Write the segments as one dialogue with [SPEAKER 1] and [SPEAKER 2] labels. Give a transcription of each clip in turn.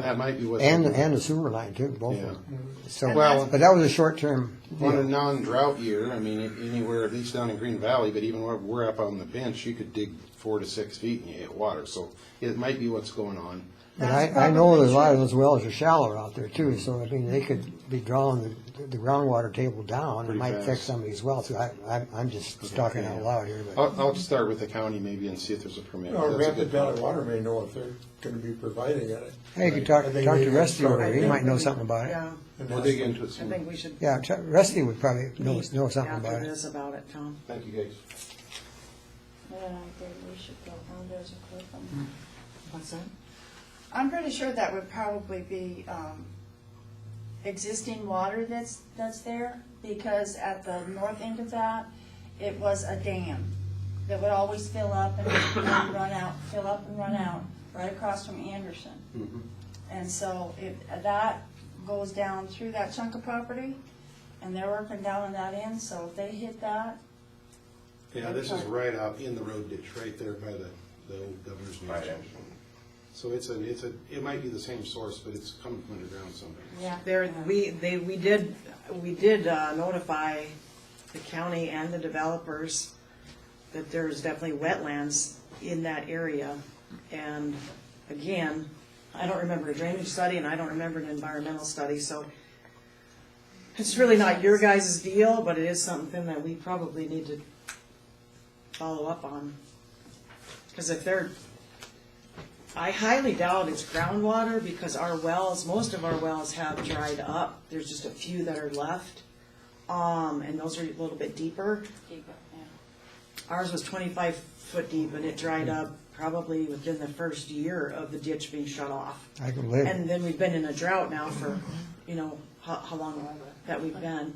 [SPEAKER 1] That might be what. they
[SPEAKER 2] And,
[SPEAKER 1] do.
[SPEAKER 2] and the sewer line too, both of them.
[SPEAKER 3] Mm-hmm.
[SPEAKER 2] So,
[SPEAKER 1] Well-
[SPEAKER 2] but that was a short-term
[SPEAKER 1] On a
[SPEAKER 2] deal.
[SPEAKER 1] non-drought year, I mean, if anywhere, at least down in Green Valley, but even where we're up on the bench, you could dig four to six feet and you hit water, so it might be what's going on.
[SPEAKER 2] And I, I know there's a lot of those wells are shallow out there too, so I mean, they could be drawing the, the groundwater table down. It
[SPEAKER 1] Pretty
[SPEAKER 2] might affect
[SPEAKER 1] fast.
[SPEAKER 2] some of these wells, so I, I'm, I'm just talking out loud here, but.
[SPEAKER 1] I'll, I'll start with the county maybe and see if there's a permit.
[SPEAKER 4] Or
[SPEAKER 1] That's a good
[SPEAKER 4] Rapid Valley
[SPEAKER 1] point.
[SPEAKER 4] Water may know if they're gonna be providing it.
[SPEAKER 2] Hey, you could talk,
[SPEAKER 4] I think
[SPEAKER 2] talk
[SPEAKER 4] we
[SPEAKER 2] to
[SPEAKER 4] need
[SPEAKER 2] Rusty
[SPEAKER 4] to
[SPEAKER 2] over
[SPEAKER 4] start
[SPEAKER 2] there, he
[SPEAKER 4] with-
[SPEAKER 2] might know something about it.
[SPEAKER 3] Yeah,
[SPEAKER 4] And
[SPEAKER 1] We'll
[SPEAKER 4] that's-
[SPEAKER 1] dig into it
[SPEAKER 3] I
[SPEAKER 1] some.
[SPEAKER 3] think we should.
[SPEAKER 2] Yeah, Chuck- Rusty would probably know,
[SPEAKER 3] meet
[SPEAKER 2] know something about
[SPEAKER 3] After
[SPEAKER 2] it.
[SPEAKER 3] this about it, Tom.
[SPEAKER 1] Thank you, guys.
[SPEAKER 5] Yeah, I think we should go down there as a cliff and-
[SPEAKER 3] What's that?
[SPEAKER 5] I'm pretty sure that would probably be, um, existing water that's, that's there, because at the north end of that, it was a dam that would always fill up and and run out, fill up and run out, right across from Anderson. And so if that goes down through that chunk of property, and they're working down on that end, so if they hit that,
[SPEAKER 1] Yeah, this is right out in the road ditch, right there by the, the old governor's mansion. So it's a, it's a, it might be the same source, but it's coming from underground somewhere.
[SPEAKER 5] yeah.
[SPEAKER 3] There, we, they, we did, we did uh, notify the county and the developers that there's definitely wetlands in that area. And again, I don't remember a drainage study and I don't remember an environmental study, so it's really not your guys' deal, but it is something that we probably need to follow up on. Because if they're I highly doubt it's groundwater because our wells, most of our wells have dried up. There's just a few that are left. Um, and those are a little bit deeper.
[SPEAKER 5] Deeper, yeah.
[SPEAKER 3] Ours was twenty-five foot deep and it dried up probably within the first year of the ditch being shut off.
[SPEAKER 2] I can live.
[SPEAKER 3] And then we've been in a drought now for, you know, how, how long that we've been.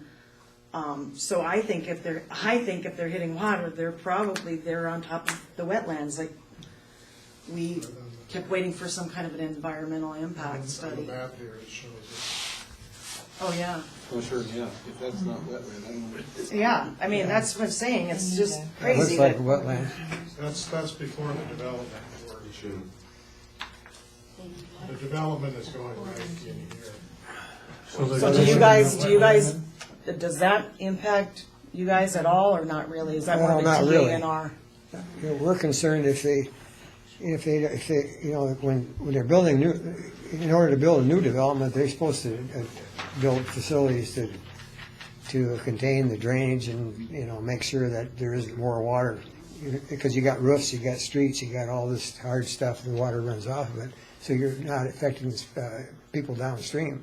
[SPEAKER 3] Um, so I think if they're, I think if they're hitting water, they're probably, they're on top of the wetlands, like, we kept waiting for some kind of an environmental impact
[SPEAKER 4] On the
[SPEAKER 3] study.
[SPEAKER 4] map here, it shows it.
[SPEAKER 3] Oh, yeah,
[SPEAKER 1] Oh, sure, yeah, if that's not wetland, I don't know.
[SPEAKER 3] yeah, I mean, that's what I'm saying, it's just
[SPEAKER 2] It
[SPEAKER 3] crazy
[SPEAKER 2] looks like
[SPEAKER 3] that,
[SPEAKER 2] a wetland.
[SPEAKER 4] That's, that's before the development authority
[SPEAKER 1] Sure.
[SPEAKER 4] The development is going right in here.
[SPEAKER 3] so do you guys, do you guys, does that impact you guys at all, or not really? Is that more
[SPEAKER 2] Well,
[SPEAKER 3] of
[SPEAKER 2] not
[SPEAKER 3] a
[SPEAKER 2] really.
[SPEAKER 3] TANR?
[SPEAKER 2] You know, we're concerned if they, if they, if they, you know, when, when they're building new, in order to build a new development, they're supposed to uh, build facilities to, to contain the drainage and, you know, make sure that there isn't more water. Because you got roofs, you got streets, you got all this hard stuff, the water runs off of it, so you're not affecting, uh, people downstream.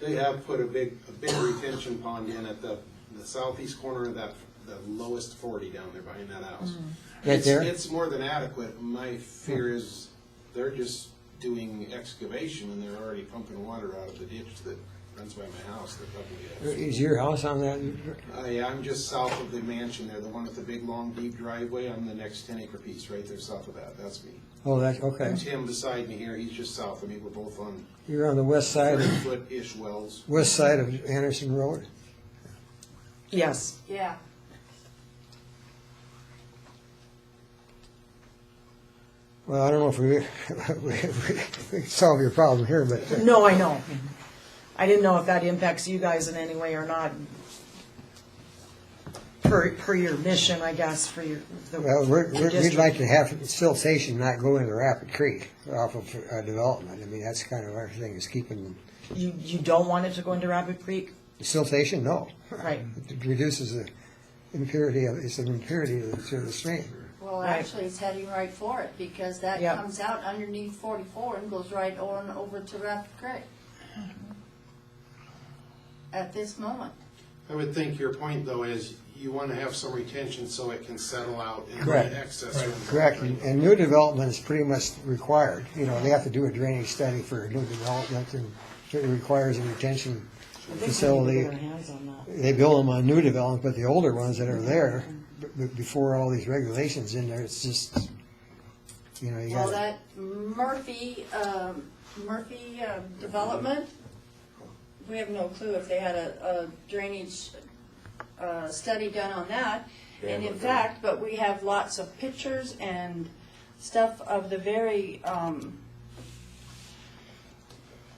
[SPEAKER 1] They have put a big, a big retention pond in at the, the southeast corner of that, the lowest forty down there behind that house.
[SPEAKER 2] Right
[SPEAKER 1] It's-
[SPEAKER 2] there?
[SPEAKER 1] It's more than adequate. My fear is they're just doing excavation and they're already pumping water out of the ditch that runs by my house. They're probably, uh,
[SPEAKER 2] Is your house on that?
[SPEAKER 1] I, I'm just south of the mansion there, the one with the big, long, deep driveway. I'm the next ten acre piece right there south of that. That's me.
[SPEAKER 2] Oh, that's, okay.
[SPEAKER 1] Tim beside me here, he's just south of me. We're both on
[SPEAKER 2] You're on the west side,
[SPEAKER 1] thirty
[SPEAKER 2] of
[SPEAKER 1] foot-ish wells.
[SPEAKER 2] west side of Anderson Road?
[SPEAKER 3] Yes,
[SPEAKER 5] Yeah.
[SPEAKER 2] Well, I don't know if we, we, we- we can solve your problem here, but uh,
[SPEAKER 3] no, I know. I didn't know if that impacts you guys in any way or not. Per, per your mission, I guess, for your, the.
[SPEAKER 2] well, we're,
[SPEAKER 3] your
[SPEAKER 2] we're- we'd
[SPEAKER 3] district.
[SPEAKER 2] like to have siltation not go into Rapid Creek off of uh, development. I mean, that's kind of our thing is keeping
[SPEAKER 3] You, you don't want it to go into Rapid Creek?
[SPEAKER 2] siltation, no.
[SPEAKER 3] Right.
[SPEAKER 2] It reduces the impurity of, it's an impurity to the- to the stream.
[SPEAKER 5] Well,
[SPEAKER 3] Right.
[SPEAKER 5] actually, it's heading right for it, because that
[SPEAKER 3] Yep.
[SPEAKER 5] comes out underneath forty-four and goes right on over to Rapid Creek.
[SPEAKER 3] Mm-hmm.
[SPEAKER 5] At this moment,
[SPEAKER 1] I would think your point, though, is you want to have some retention so it can settle out and
[SPEAKER 2] Correct.
[SPEAKER 1] the excess.
[SPEAKER 4] Right.
[SPEAKER 1] from-
[SPEAKER 2] Correct, and and new development is pretty much required. You know, they have to do a drainage study for a new development and it requires a retention
[SPEAKER 3] I think we need to
[SPEAKER 2] facility.
[SPEAKER 3] Get our hands on that.
[SPEAKER 2] they build them on new development, but the older ones that are there, b- b- before all these regulations in there, it's just, you know, you
[SPEAKER 5] well,
[SPEAKER 2] got,
[SPEAKER 5] that Murphy, um, Murphy, um, development, we have no clue if they had a, a drainage, uh, study done on that. And in fact, but we have lots of pictures and stuff of the very, um,